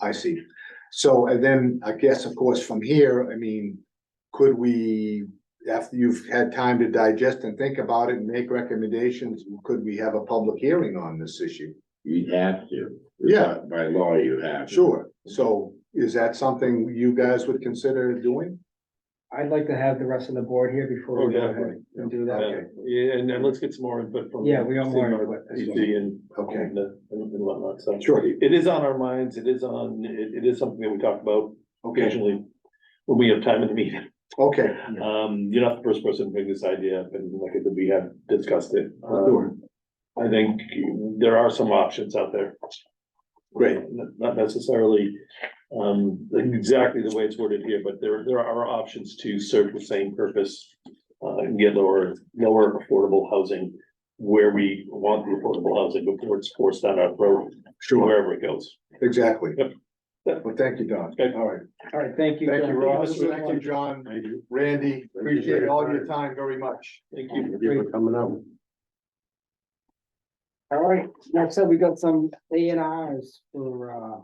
I see. So, and then I guess, of course, from here, I mean, could we, after you've had time to digest and think about it and make recommendations, could we have a public hearing on this issue? You'd have to. Yeah. By law, you have. to. Sure. So is that something you guys would consider doing? I'd like to have the rest of the board here before Oh, we go ahead definitely. and do Yeah, that. Yeah, and, and let's get some more input from. Yeah, we are more CMRPC input as well. And, Okay, and, the- and whatnot, so. sure. It is on our minds, it is on, it, it is something that we talk about Okay, occasionally when we have time in the meeting. okay. Um, you're not the first person to bring this idea up, and like I said, we have discussed it. Um, Sure. I think there are some options out there. Great. Not- Not necessarily, um, exactly the way it's worded here, but there, there are options to serve the same purpose. Uh, and get lower, lower affordable housing where we want the affordable housing before it's forced down our throat, Sure, wherever it goes. exactly. Yep. Well, thank you, Don. Okay. All right. All right, thank you. Thank you, John. Ross. Have a good Thank one. you, John. I do. Randy, appreciate all your time very much. Thank you. Thank you for coming out. All right, next up, we got some A and Rs for, uh.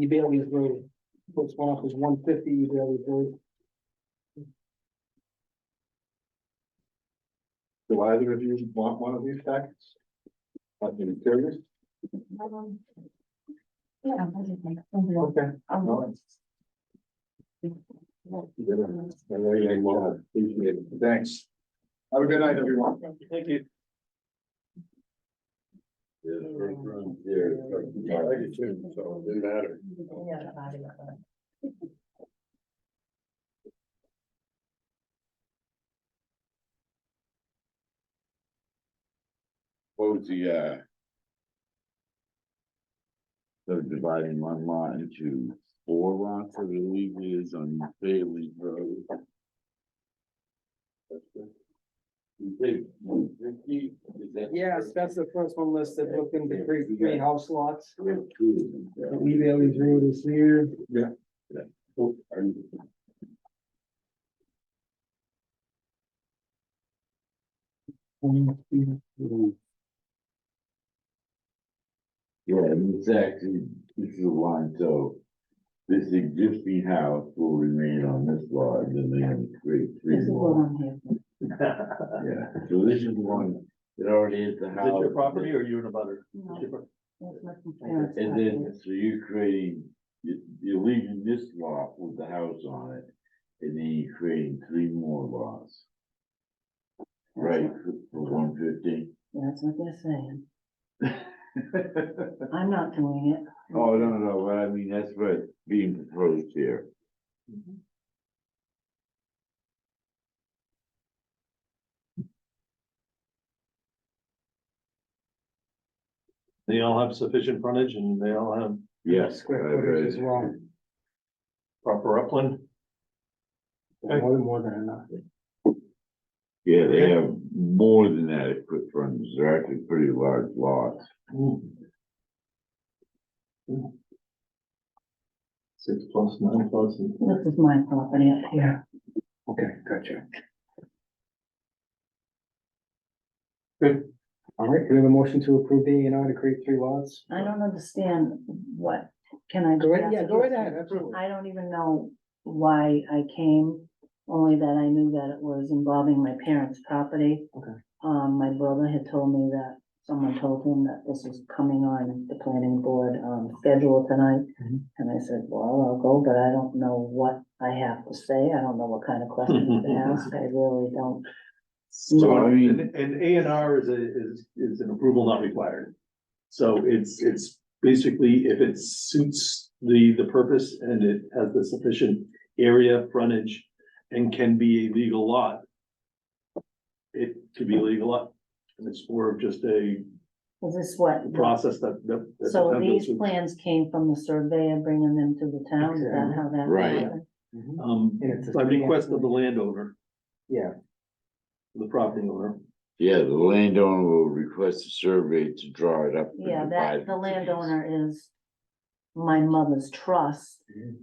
Ebelia's Road, first one up is one fifty Ebelia's Road. Do either of you want one of these packets? I've been curious. Um, Yeah, I just like, um, Okay. um, Thanks. Have a good night, everyone. Thank you. Yeah, right around here, it's like, I like it too, so it didn't matter. yeah, about it, uh, What was the, uh? So dividing one lot into four lots, I believe it is on Bailey Road. You think 150? Is that- Yes, that's the first one listed, looking to create three house lots. We have two of them, yeah. Ebelia's Road is here. Oh, are you- Yeah, and it's actually, this is a line, so. This existing house will remain on this lot, and then they have to create three this is what lots. I'm here for. Yeah, so this is one that already is the Is house. it your property or you and a butter? No, that's what my parents And got me. then, so you're creating, you- you're leaving this lot with the house on it, and then you're creating three more lots. Right, for- for one fifty? Yeah, That's what they're saying. I'm not doing it. Oh, no, no, but I mean, that's what's being proposed here. They all have sufficient frontage and they all have Yes. Square footage as well. proper upland. More than, more than enough. Yeah, they have more than adequate frontage, they're actually pretty large lots. Six plus, nine plus. and- This is my property up here. Okay, gotcha. Good. All right, do we have a motion to approve the A and R to create three lots? I don't understand what, can I? Go right, just yeah, ask go you- right ahead, absolutely. I don't even know why I came, only that I knew that it was involving my parents' property. Okay. Um, my brother had told me that, someone told him that this was coming on the planning board, um, schedule tonight. Mhm. And I said, well, I'll go, but I don't know what I have to say, I don't know what kind of questions to ask, I really don't. So, I mean- and, and A and R is a, is, is an approval not required. So it's, it's basically if it suits the, the purpose and it has the sufficient area, frontage, and can be a legal lot. It could be a legal lot, and it's more of just a Is this what? process that, that. that So the town goes these through. plans came from the surveyor bringing them to the town, is that how that? Right. happened? Um, And it's a by request of the three-acre- landowner, Mm-hmm. Yeah, the property owner. Yeah, the landowner will request a survey to draw it up. and Yeah, divide it that, into the these. landowner is my mother's trust. Mhm.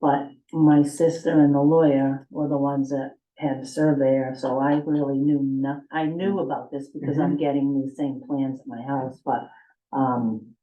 But my sister and the lawyer were the ones that had a surveyor, so I really knew no, I knew about this because I'm getting these same plans at my house, but, um.